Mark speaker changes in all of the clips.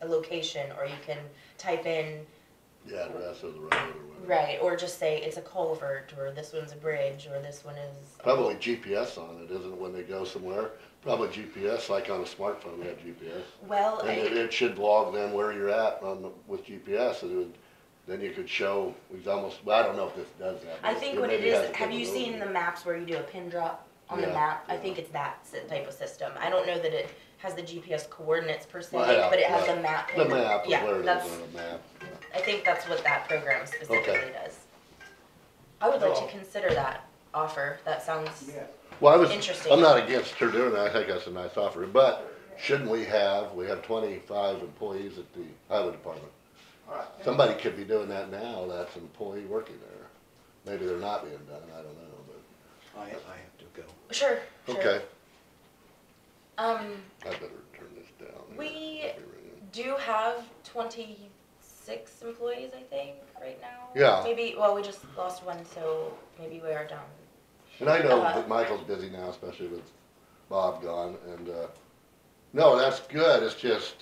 Speaker 1: a location, or you can type in,
Speaker 2: the address of the road or whatever.
Speaker 1: right, or just say it's a culvert, or this one's a bridge, or this one is.
Speaker 2: Probably GPS on it, isn't it, when they go somewhere? Probably GPS, like on a smartphone, we have GPS.
Speaker 1: Well,
Speaker 2: And it,
Speaker 1: I-
Speaker 2: it should log then where you're at on, the- with GPS, and it would, then you could show, we've almost, well, I don't know if this does that.
Speaker 1: I
Speaker 2: but
Speaker 1: think what it
Speaker 2: maybe has
Speaker 1: is,
Speaker 2: the
Speaker 1: have you
Speaker 2: capability.
Speaker 1: seen the maps where you do a pin drop on the
Speaker 2: Yeah,
Speaker 1: map? I
Speaker 2: yeah.
Speaker 1: think it's that s- type of system. I don't know that it has the GPS coordinates per se,
Speaker 2: Well, yeah,
Speaker 1: but it has
Speaker 2: yeah.
Speaker 1: a map.
Speaker 2: The
Speaker 1: pin-
Speaker 2: map, of
Speaker 1: Yeah,
Speaker 2: where it
Speaker 1: that's-
Speaker 2: is on the map.
Speaker 1: I think that's what that program specifically does. I would like to
Speaker 3: Well-
Speaker 1: consider that offer, that sounds,
Speaker 3: Yeah.
Speaker 2: Well, I was,
Speaker 1: Interesting.
Speaker 2: I'm not against her doing that, I think that's a nice offer, but shouldn't we have, we have twenty-five employees at the highway department.
Speaker 3: All right.
Speaker 2: Somebody could be doing that now, that's an employee working there. Maybe they're not being done, I don't know, but,
Speaker 3: I, I have to go.
Speaker 1: sure, sure.
Speaker 2: okay,
Speaker 1: Um,
Speaker 2: I better turn this down. here.
Speaker 1: We- do you have twenty-six employees, I think, right now?
Speaker 2: Yeah.
Speaker 1: Maybe, well, we just lost one, so maybe we are down.
Speaker 2: And I know
Speaker 1: Uh-huh.
Speaker 2: that Michael's busy now, especially with Bob gone, and, uh, no, that's good, it's just,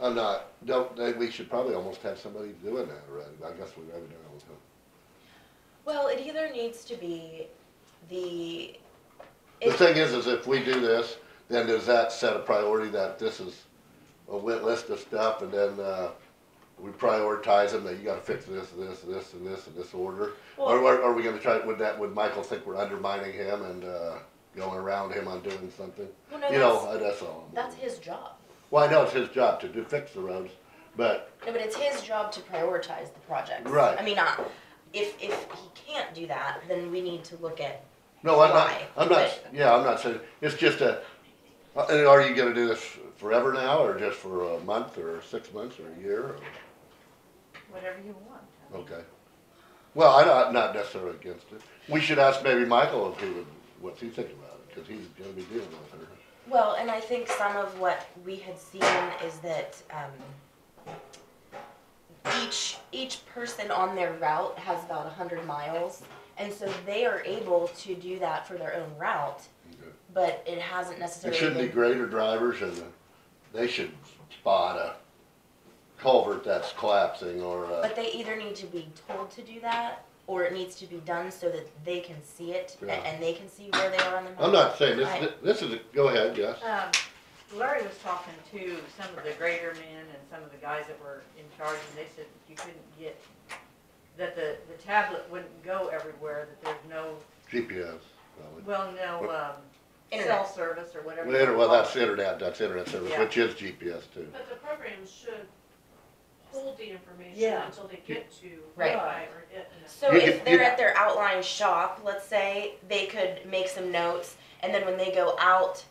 Speaker 2: I'm not, don't, they- we should probably almost have somebody doing that already, but I guess we already done it all the time.
Speaker 1: Well, it either needs to be the.
Speaker 2: The
Speaker 1: it-
Speaker 2: thing is, is if we do this, then does that set a priority that this is a wit list of stuff and then, uh, we prioritize them that you gotta fix this, this, this, and this, in this order? Or,
Speaker 1: Well,
Speaker 2: or are we gonna try, would that, would Michael think we're undermining him and, uh, going around him on doing something?
Speaker 1: well, no,
Speaker 2: You know, uh, that's all. I'm
Speaker 1: that's, that's
Speaker 2: wondering.
Speaker 1: his job.
Speaker 2: Well, I know it's his job to do, fix the roads, but,
Speaker 1: No, but it's his job to prioritize the projects.
Speaker 2: Right.
Speaker 1: I mean, uh, if, if he can't do that, then we need to look at,
Speaker 2: no, I'm not,
Speaker 1: Why?
Speaker 2: I'm not, yeah, I'm not saying, it's just a, uh, and are you gonna do this forever now, or just for a month, or six months, or a year, or?
Speaker 4: whatever you want.
Speaker 2: Okay. Well, I'm not- not necessarily against it. We should ask maybe Michael if he would, what's he thinking about it, because he's gonna be dealing with her.
Speaker 1: well, and I think some of what we had seen is that, um, each, each person on their route has about a hundred miles. And so they are able to do that for their own route, but it hasn't
Speaker 2: It
Speaker 1: necessarily
Speaker 2: shouldn't be
Speaker 1: been
Speaker 2: grader drivers and they should spot a culvert that's collapsing or uh,
Speaker 1: But
Speaker 2: a,
Speaker 1: they either need to be told to do that, or it needs to be done so that they can see it, a-
Speaker 2: Yeah.
Speaker 1: and they can see where they are on the map.
Speaker 2: I'm not saying this,
Speaker 1: Right.
Speaker 2: this is, a- go ahead, yes.
Speaker 4: Um, Larry was talking to some of the greater men and some of the guys that were in charge, and they said you couldn't get, that the, the tablet wouldn't go everywhere, that there's no,
Speaker 2: GPS. probably.
Speaker 4: well, no, um, cell
Speaker 1: Internet.
Speaker 4: service or whatever.
Speaker 2: Well, inter-
Speaker 4: you
Speaker 2: well,
Speaker 4: call
Speaker 2: that's
Speaker 4: it.
Speaker 2: internet, that's internet service,
Speaker 4: Yeah.
Speaker 2: which is GPS too.
Speaker 5: But the program should hold the information
Speaker 4: Yeah.
Speaker 5: until they get to.
Speaker 1: Right.
Speaker 5: Wi-Fi or it.
Speaker 1: So
Speaker 2: You
Speaker 1: if
Speaker 2: could-
Speaker 1: they're
Speaker 2: you-
Speaker 1: at their outline shop, let's say, they could make some notes, and then when they go out,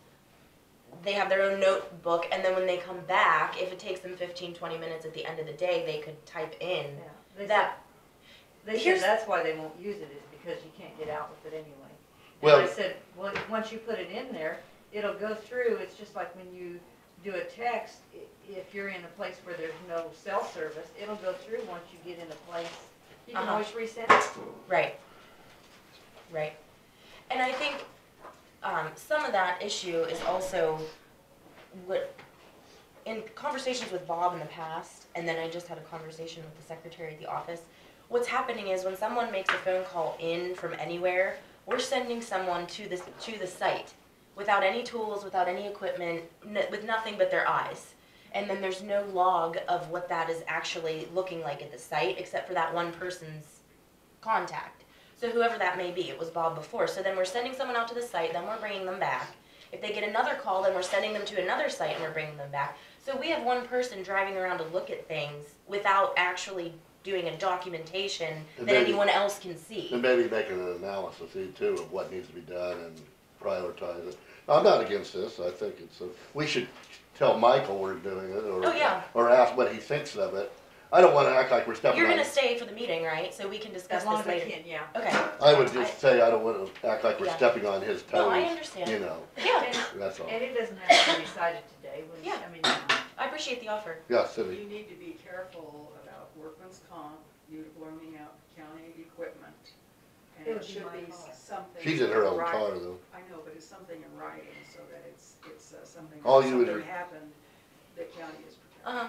Speaker 1: they have their own notebook, and then when they come back, if it takes them 15, 20 minutes at the end of the day, they could type in
Speaker 4: Yeah. They said,
Speaker 1: that.
Speaker 4: they
Speaker 1: here's-
Speaker 4: said that's why they won't use it, is because you can't get out with it anyway.
Speaker 2: Well-
Speaker 4: And I said, well, once you put it in there, it'll go through, it's just like when you do a text, i- if you're in a place where there's no cell service, it'll go through once you get in a place, you can
Speaker 1: Uh-huh.
Speaker 4: always resend it.
Speaker 1: Right. Right. And I think um, some of that issue is also what in conversations with Bob in the past, and then I just had a conversation with the secretary at the office. What's happening is when someone makes a phone call in from anywhere, we're sending someone to this to the site without any tools, without any equipment, n- with nothing but their eyes. And then there's no log of what that is actually looking like at the site, except for that one person's contact. So whoever that may be, it was Bob before. So then we're sending someone out to the site, then we're bringing them back. If they get another call, then we're sending them to another site and we're bringing them back. So we have one person driving around to look at things without actually doing a documentation
Speaker 2: And
Speaker 1: that
Speaker 2: then-
Speaker 1: anyone else can see.
Speaker 2: And maybe making an analysis see, too of what needs to be done and prioritize it. I'm not against this, I think it's, a- we should tell Michael we're doing it or.
Speaker 1: Oh, yeah.
Speaker 2: Or ask what he thinks of it. I don't wanna act like we're stepping
Speaker 1: You're
Speaker 2: on,
Speaker 1: gonna stay for the meeting, right? So we can discuss
Speaker 4: As long
Speaker 1: this
Speaker 4: as I
Speaker 1: later.
Speaker 4: can, yeah.
Speaker 1: Okay,
Speaker 2: I would just say I don't wanna act like we're
Speaker 1: Yeah.
Speaker 2: stepping on his
Speaker 1: No, I
Speaker 2: toes,
Speaker 1: understand.
Speaker 2: you know,
Speaker 1: yeah,
Speaker 4: And-
Speaker 2: that's all.
Speaker 4: And it doesn't have to be decided today, when,
Speaker 1: Yeah.
Speaker 4: I mean, um,
Speaker 1: I appreciate the offer.
Speaker 2: Yeah, Cindy,
Speaker 6: You need to be careful about workman's comp, uniforming out county equipment. And
Speaker 4: It would
Speaker 6: it
Speaker 4: be
Speaker 6: should
Speaker 4: my
Speaker 6: be
Speaker 4: car.
Speaker 6: something.
Speaker 2: she's in her own
Speaker 6: writing.
Speaker 2: car though.
Speaker 6: I know, but it's something in writing so that it's, it's uh, something,
Speaker 2: All you would-
Speaker 6: something happened that county is protected.
Speaker 1: Uh-huh.